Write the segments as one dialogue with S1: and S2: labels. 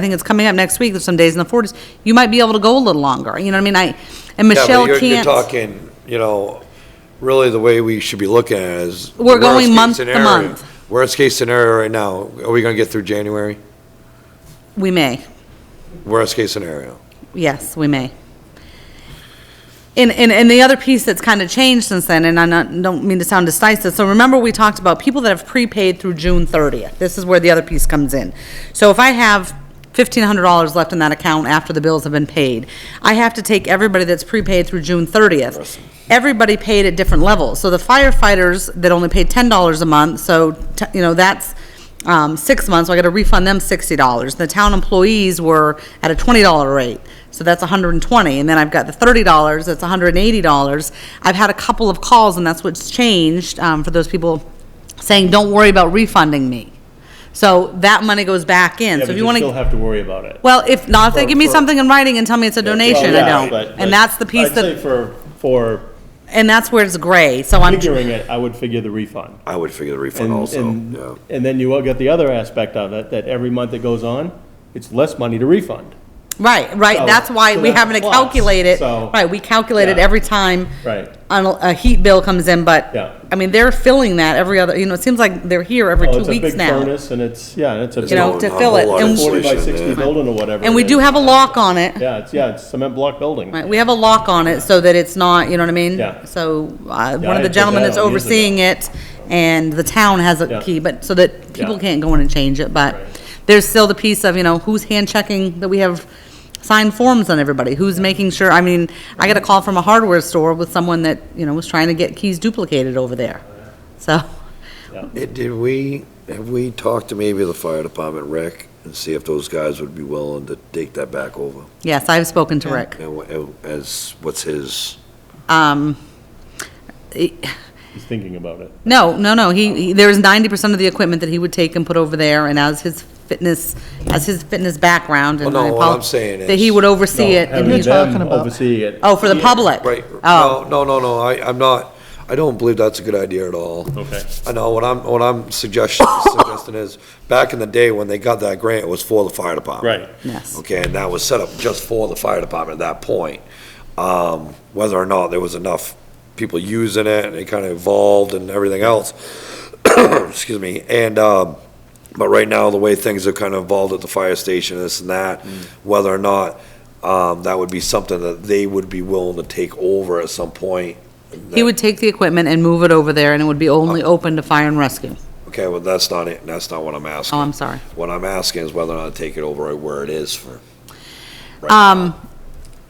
S1: I think it's coming up next week, there's some days in the forties, you might be able to go a little longer, you know what I mean? I, and
S2: Yeah, but
S1: Michelle
S2: you're- You're
S1: can't,
S2: talking, you know, really the way we should be looking at it is.
S1: We're going
S2: worst-case
S1: month to
S2: scenario-
S1: month.
S2: Worst-case scenario right now, are we gonna get through January?
S1: we may,
S2: Worst-case scenario.
S1: yes, we may. And, and, and the other piece that's kind of changed since then, and I not, don't mean to sound decisive, so remember we talked about people that have prepaid through June thirtieth, this is where the other piece comes in. So if I have fifteen hundred dollars left in that account after the bills have been paid, I have to take everybody that's prepaid through June thirtieth. Everybody paid at different levels, so the firefighters that only paid ten dollars a month, so, t- you know, that's, um, six months, so I gotta refund them sixty dollars. The town employees were at a twenty dollar rate, so that's hundred and twenty, and then I've got the thirty dollars, that's hundred and eighty dollars. I've had a couple of calls, and that's what's changed, um, for those people saying, don't worry about refunding me. So that money goes back in,
S3: Yeah,
S1: so
S3: but
S1: if you
S3: you
S1: wanna.
S3: still have to worry about it.
S1: Well, if not, if they give me
S2: For- for-
S1: something in writing and tell me it's a donation, I
S3: Yeah,
S1: don't.
S3: but- but
S1: And that's the piece
S3: I'd say
S1: that,
S3: for, for
S1: and that's where it's gray, so I'm,
S3: figuring it, I would figure the refund.
S2: I would figure the refund
S3: And-
S2: also,
S3: and-
S2: yeah.
S3: And then you all got the other aspect of it, that every month that goes on, it's less money to refund.
S1: right, right,
S3: So-
S1: that's why
S3: so
S1: we
S3: that's
S1: haven't
S3: plus,
S1: calculated.
S3: so-
S1: Right, we calculate it
S3: Yeah.
S1: every time.
S3: Right.
S1: On, a a heat bill comes in, but.
S3: Yeah.
S1: I mean, they're filling that every other, you know, it seems like they're here every
S3: Oh,
S1: two
S3: it's a big
S1: weeks now.
S3: furnace and it's, yeah, and it's a
S2: It's
S1: You know,
S2: not
S3: big
S1: to
S2: a
S1: fill
S2: whole
S1: it,
S2: lot of
S1: and-
S3: forty by
S2: insulation
S3: sixty
S2: there.
S3: building or whatever.
S1: And we
S3: it
S1: do
S3: is.
S1: have a lock on it,
S3: Yeah, it's, yeah, it's cement block building.
S1: right, we have a lock on it so that it's not, you know what I mean?
S3: Yeah.
S1: So, uh,
S3: Yeah,
S1: one
S3: I
S1: of the
S3: did
S1: gentlemen
S3: that
S1: that's
S3: years ago.
S1: overseeing it and the town has
S3: Yeah.
S1: a key, but, so that people
S3: Yeah.
S1: can't go in and change it, but
S3: Right.
S1: there's still the piece of, you know, who's hand checking that we have signed forms on everybody, who's making sure, I mean, I got a call from a hardware store with someone that, you know, was trying to get keys duplicated over there, so.
S2: Did did we, have we talked to maybe the fire department, Rick, and see if those guys would be willing to take that back over?
S1: Yes, I've spoken to Rick.
S2: And wha- and as, what's his,
S1: Um, he-
S3: He's thinking about it.
S1: no, no, no, he, he- there was ninety percent of the equipment that he would take and put over there, and as his fitness, as his fitness background, and
S2: Well,
S1: I
S2: no, what I'm
S1: apolog-
S2: saying
S1: That he
S2: is-
S1: would oversee
S3: No,
S1: it, and
S3: having
S1: he,
S3: them
S4: talking about?
S3: Oversee it.
S1: oh, for the public?
S2: right?
S1: Oh,
S2: No, no, no, no, I, I'm not, I don't believe that's a good idea at all.
S3: Okay.
S2: I know, what I'm, what I'm suggesting, suggesting is, back in the day when they got that grant, it was for the fire department.
S3: Right.
S1: yes,
S2: Okay, and that was set up just for the fire department at that point. Um, whether or not there was enough people using it, and it kind of evolved and everything else. Excuse me, and, um, but right now, the way things have kind of evolved at the fire station, this and that, whether or not, um, that would be something that they would be willing to take over at some point.
S1: he would take the equipment and move it over there, and it would be only
S2: Oh.
S1: open to fire and rescue.
S2: Okay, well, that's not it, that's not what I'm asking.
S1: Oh, I'm sorry.
S2: What I'm asking is whether or not to take it over where it is for. right now.
S1: Um,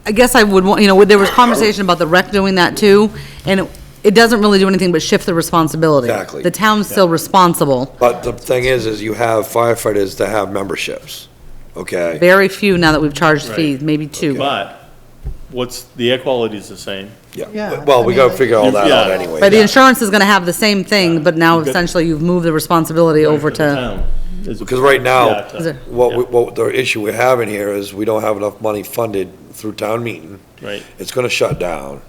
S1: I guess I would want, you know, there was conversation about the rec doing that too, and it, it doesn't really do anything but shift the responsibility.
S2: Exactly.
S1: The town's still responsible,
S2: But the thing is, is you have firefighters that have memberships, okay?
S1: very few now that we've charged
S3: Right.
S1: fees, maybe two.
S3: But what's, the air quality's the same.
S4: Yeah,
S2: Well, we
S4: I
S2: gotta
S4: mean,
S2: figure all that out
S3: Yeah.
S2: anyway.
S1: But the
S2: yeah.
S1: insurance is gonna have the same thing, but now
S3: You've got-
S1: essentially you've moved the responsibility over to,
S2: Because right now-
S1: Is it-
S2: What, we- what the issue we're having here is we don't have enough money funded through town meeting.
S3: Right,
S2: It's gonna shut down.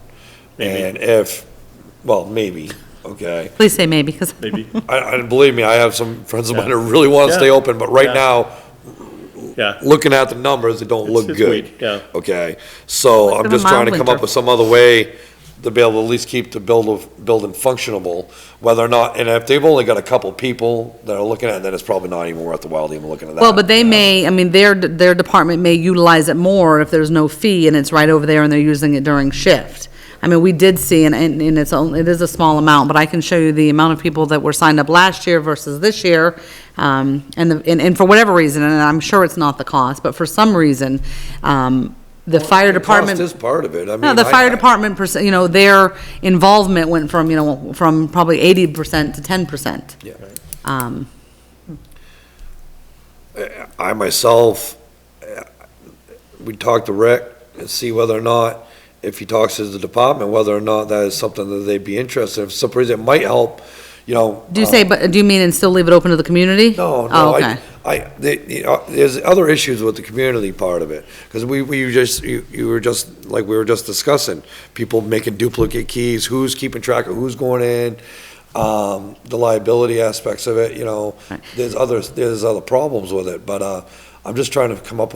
S2: And
S3: maybe,
S2: if, well, maybe, okay?
S1: please say maybe, because
S3: maybe,
S2: I, I, believe me, I have some friends of mine that
S3: Yeah.
S2: really wanna stay
S3: Yeah.
S2: open, but right
S3: Yeah.
S2: now,
S3: yeah.
S2: looking at the numbers, it don't
S3: It's-
S2: look
S3: it's
S2: good.
S3: weird, Yeah.
S2: Okay, so
S1: Let's
S2: I'm
S1: give 'em
S2: just trying to
S1: mild
S2: come
S1: winter.
S2: up with some other way to be able to at least keep the build of, building functionable, whether or not, and if they've only got a couple people that are looking at it, then it's probably not even worth the while to even looking at that.
S1: Well, but they may, I mean, their, their department may utilize it more if there's no fee and it's right over there and they're using it during shift. I mean, we did see, and, and and it's only, it is a small amount, but I can show you the amount of people that were signed up last year versus this year. Um, and, the- and, and for whatever reason, and I'm sure it's not the cost, but for some reason, um, the fire
S2: The cost
S1: department.
S2: is part of it, I mean.
S1: No, the
S2: I-
S1: fire
S2: I-
S1: department, perc- you know, their involvement went from, you know, from probably eighty percent to ten percent.
S2: Yeah.
S1: Um,
S2: I myself, uh, we talked to Rick and see whether or not, if he talks to the department, whether or not that is something that they'd be interested in. For some reason, it might help, you know.
S1: do you
S2: uh,
S1: say, but, do you mean and still leave it open to the community? Oh,
S2: No, no,
S1: okay.
S2: I, I, the- the, uh, there's other issues with the community part of it, because we, we just, you, you were just, like we were just discussing, people making duplicate keys, who's keeping track of who's going in, um, the liability aspects of it, you know,
S1: Right.
S2: there's others, there's other problems with it, but, uh, I'm just trying to come up with.